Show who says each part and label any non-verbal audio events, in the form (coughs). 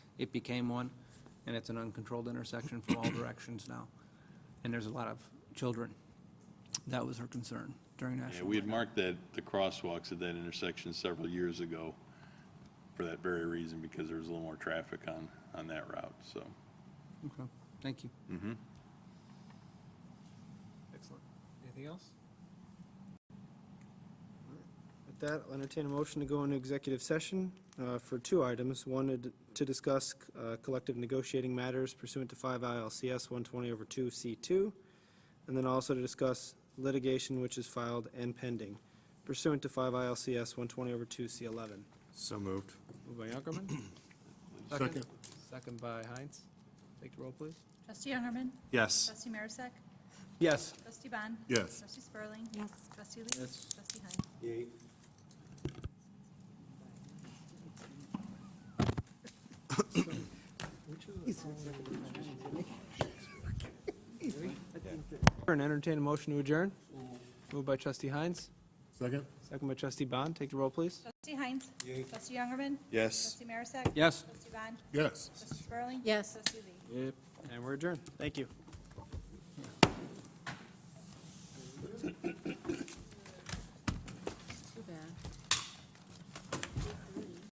Speaker 1: It became one, and it's an uncontrolled intersection from all (coughs) directions now. And there's a lot of children. That was her concern during
Speaker 2: Yeah,
Speaker 1: National.
Speaker 2: we had marked that, the crosswalks at that intersection several years ago for that very reason, because there was a little more traffic on, on that route, so.
Speaker 1: Okay, Thank you.
Speaker 2: Mm-hmm.
Speaker 3: Excellent. Anything else?
Speaker 4: With that, I'll entertain a motion to go into executive session uh, for two items. One, to d- to discuss uh, collective negotiating matters pursuant to 5 ILCS 120 over 2 C2, and then also to discuss litigation which is filed and pending pursuant to 5 ILCS 120 over 2 C11.
Speaker 5: So moved.
Speaker 3: Moved by
Speaker 2: (coughs)
Speaker 3: Youngerman.
Speaker 5: Second.
Speaker 3: Second by Heinz. Take the roll, please.
Speaker 6: Trustee Youngerman.
Speaker 5: Yes.
Speaker 6: Trustee Marisak.
Speaker 3: Yes.
Speaker 6: Trustee Bond.
Speaker 5: Yes.
Speaker 6: Trustee Spurling.
Speaker 7: Yes.
Speaker 6: Trustee Lee.
Speaker 3: Yes.
Speaker 6: Trustee Heinz.
Speaker 3: And entertain a motion to adjourn. Moved by trustee Heinz,
Speaker 5: Second?
Speaker 3: second by trustee Bond. Take the roll, please.
Speaker 6: Trustee Heinz. Trustee Youngerman.
Speaker 5: Yes.
Speaker 6: Trustee Marisak.
Speaker 1: Yes.
Speaker 6: Trustee Bond.
Speaker 5: Yes.
Speaker 6: Trustee Spurling.
Speaker 7: Yes.
Speaker 6: Trustee Lee.
Speaker 3: And we're adjourned. Thank you.